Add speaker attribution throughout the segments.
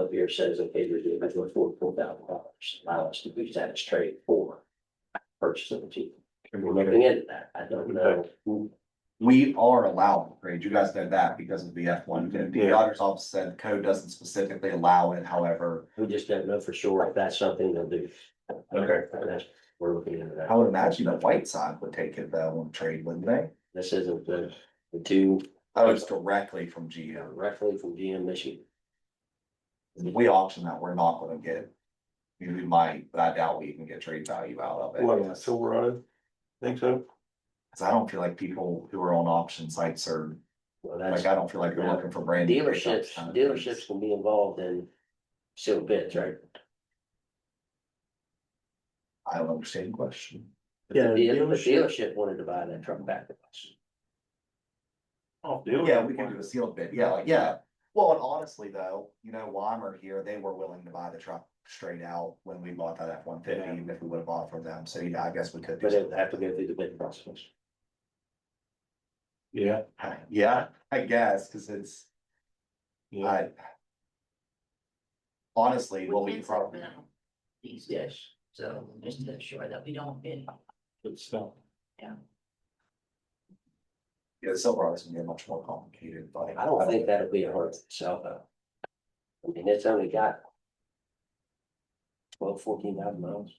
Speaker 1: up here says, okay, there's the eventual four, four thousand dollars, allow us to use that as trade for purchase of the team.
Speaker 2: Can
Speaker 1: We're
Speaker 2: we
Speaker 1: looking into that, I don't know.
Speaker 3: We are allowing upgrades. You guys know that because of the F one fifty. The
Speaker 2: Yeah.
Speaker 3: auditor's office said the code doesn't specifically allow it, however,
Speaker 1: We just don't know for sure if that's something they'll do.
Speaker 2: Okay.
Speaker 1: And that's, we're looking into
Speaker 3: I
Speaker 1: that.
Speaker 3: would imagine the white side would take it though on trade, wouldn't they?
Speaker 1: This isn't the, the two
Speaker 3: Oh, it's directly from GM.
Speaker 1: directly from GM Michigan.
Speaker 3: If we auction that, we're not gonna get. I mean, We might, but I doubt we even get trade value out of it.
Speaker 2: What, Silverado? Think so?
Speaker 3: Cause I don't feel like people who are on auction sites are,
Speaker 1: Well, that's,
Speaker 3: like, I don't feel like they're looking for brand. new
Speaker 1: dealerships,
Speaker 3: kind of
Speaker 1: dealerships
Speaker 3: things.
Speaker 1: can be involved in sealed bids, right?
Speaker 3: I don't understand the question.
Speaker 1: If the
Speaker 2: Yeah,
Speaker 1: deal- if the
Speaker 2: dealership.
Speaker 1: Dealership wanted to buy that truck back from us.
Speaker 2: Oh, deal.
Speaker 3: Yeah, we can do a sealed bid, yeah, like, yeah. Well, and honestly though, you know, Weimer here, they were willing to buy the truck straight out when we bought that F one fifty,
Speaker 2: Yeah.
Speaker 3: even if we would have bought from them, so yeah, I guess we could. do
Speaker 1: But it would
Speaker 3: something.
Speaker 1: have to go through the bid process.
Speaker 2: Yeah,
Speaker 3: Yeah, I guess, cause it's,
Speaker 2: yeah.
Speaker 3: I. Honestly, what we
Speaker 4: can
Speaker 3: could
Speaker 4: say
Speaker 3: probably,
Speaker 4: no. These days,
Speaker 1: Yes,
Speaker 4: so just to ensure that we don't bid.
Speaker 2: Good stuff.
Speaker 3: yeah, Silverado's gonna get much more complicated, but.
Speaker 1: I don't think that'll be a hard sell though. I mean, it's only got. Twelve, fourteen thousand miles.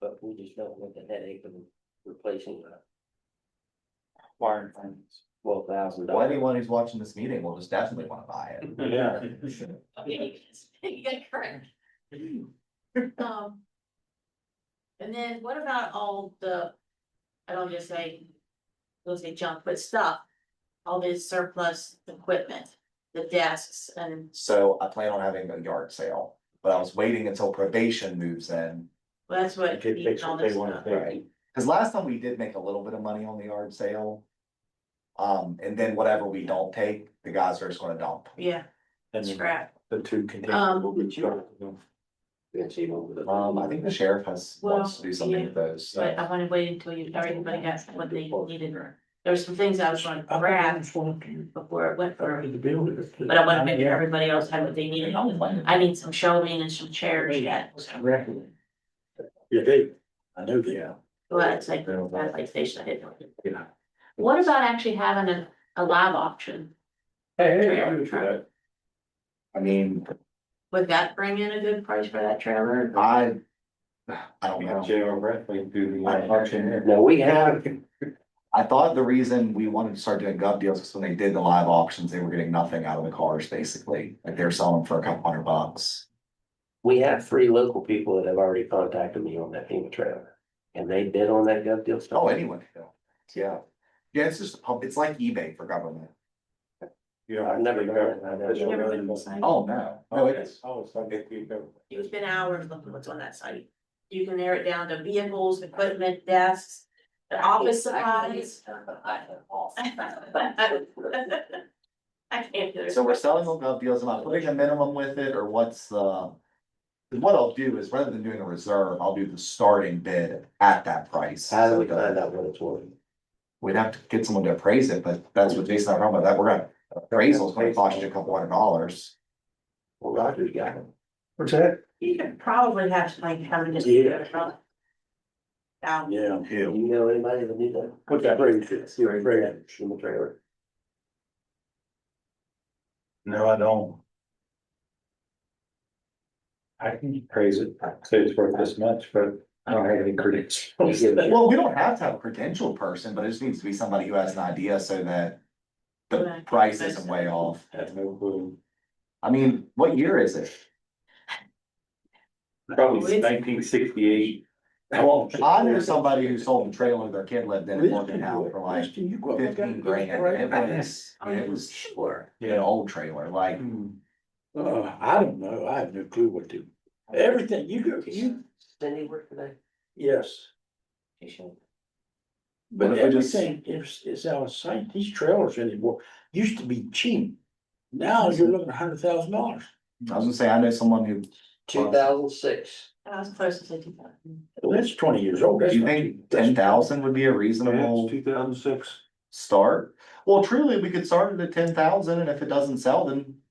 Speaker 1: But we just don't want the headache of replacing a
Speaker 2: Wiring things.
Speaker 1: twelve thousand
Speaker 3: Well,
Speaker 1: dollar.
Speaker 3: anyone who's watching this meeting will just definitely wanna buy it.
Speaker 2: Yeah.
Speaker 4: Okay, you got correct. Um. And then what about all the, I don't just say, don't say junk, but stuff, all this surplus equipment, the desks and,
Speaker 3: So I plan on having a yard sale, but I was waiting until probation moves in.
Speaker 4: well, that's what.
Speaker 2: They fix
Speaker 4: all
Speaker 2: what they
Speaker 4: this
Speaker 2: wanna
Speaker 4: stuff.
Speaker 2: fix.
Speaker 3: Right. Cause last time we did make a little bit of money on the yard sale. Um, and then whatever we don't take, the guys are just gonna dump.
Speaker 4: Yeah,
Speaker 2: And then
Speaker 4: scrap.
Speaker 2: the two containers
Speaker 4: Um,
Speaker 2: will be charged.
Speaker 3: Um, I think the sheriff has, wants to do something with those, so.
Speaker 4: But uh, I wanna wait until you, everybody got what they needed. There's some things I was gonna grab before it went for,
Speaker 2: The building.
Speaker 4: but I wanna make sure everybody else had what they needed. I need some shelving and some chairs yet,
Speaker 2: Yeah, they, I know they are.
Speaker 4: but it's like, that's like station I didn't. know. What about actually having a, a live auction?
Speaker 2: Hey,
Speaker 4: hey, I'm good for that.
Speaker 3: I mean,
Speaker 4: Would that bring in a good price for that trailer?
Speaker 3: I. I don't know.
Speaker 2: J.R. Rathling do the uh,
Speaker 3: I-
Speaker 2: auction.
Speaker 1: No, we have,
Speaker 3: I thought the reason we wanted to start doing gov deals is when they did the live auctions, they were getting nothing out of the cars, basically. Like they were selling for a couple hundred bucks.
Speaker 1: we have three local people that have already contacted me on that FEMA trailer. And they bid on that gov deal stuff.
Speaker 3: Oh, anyone. could do it. Yeah. Yeah, it's just, a pub- it's like eBay for government.
Speaker 2: Yeah.
Speaker 1: I've never done it. I never-
Speaker 4: You never been inside?
Speaker 3: Oh, no. No, it is.
Speaker 2: Oh, so they keep going.
Speaker 4: You spend hours looking what's on that site. You can narrow it down to vehicles, equipment, desks, office supplies. I can't do it.
Speaker 3: So we're selling on gov deals. Am I putting a minimum with it or what's the? What I'll do is rather than doing a reserve, I'll do the starting bid at that price.
Speaker 1: How do we find out what it's worth?
Speaker 3: We'd have to get someone to appraise it, but that's what Jason, I'm wrong about that. We're gonna, appraisal's gonna cost you a couple hundred dollars.
Speaker 1: Well, Roger's got it.
Speaker 2: What's that?
Speaker 4: You could probably have like having just.
Speaker 2: Yeah.
Speaker 4: Down.
Speaker 2: Yeah.
Speaker 1: Do you know anybody that knew that?
Speaker 2: What's that?
Speaker 1: You already read that FEMA trailer.
Speaker 2: No, I don't. I can praise it, say it's worth this much, but I don't have any credits.
Speaker 1: You give it-
Speaker 3: Well, we don't have to have a credentialed person, but it just needs to be somebody who has an idea so that the
Speaker 4: Right.
Speaker 3: price isn't way off.
Speaker 2: Have no clue.
Speaker 3: I mean, what year is it?
Speaker 2: Probably nineteen sixty-eight.
Speaker 3: Well, I knew somebody who sold a trailer their kid lived in and worked it out for like fifteen grand. It was,
Speaker 4: Um,
Speaker 3: it was,
Speaker 4: Sure.
Speaker 3: an old trailer, like,
Speaker 2: Hmm. Uh, I don't know, I have no clue what to, everything, you go, you,
Speaker 1: Cindy work today?
Speaker 2: yes,
Speaker 1: She should.
Speaker 2: but
Speaker 3: What if I just-
Speaker 2: everything is, is out of sight, these trailers anymore, used to be cheap. Now you're looking at a hundred thousand dollars.
Speaker 3: I was gonna say, I know someone who,
Speaker 1: Two thousand six.
Speaker 4: I was close to fifty thousand.
Speaker 2: Well, that's twenty years old.
Speaker 3: do you think ten thousand would be a reasonable
Speaker 2: Two thousand six.
Speaker 3: start? Well, truly, we could start it at ten thousand and if it doesn't sell, then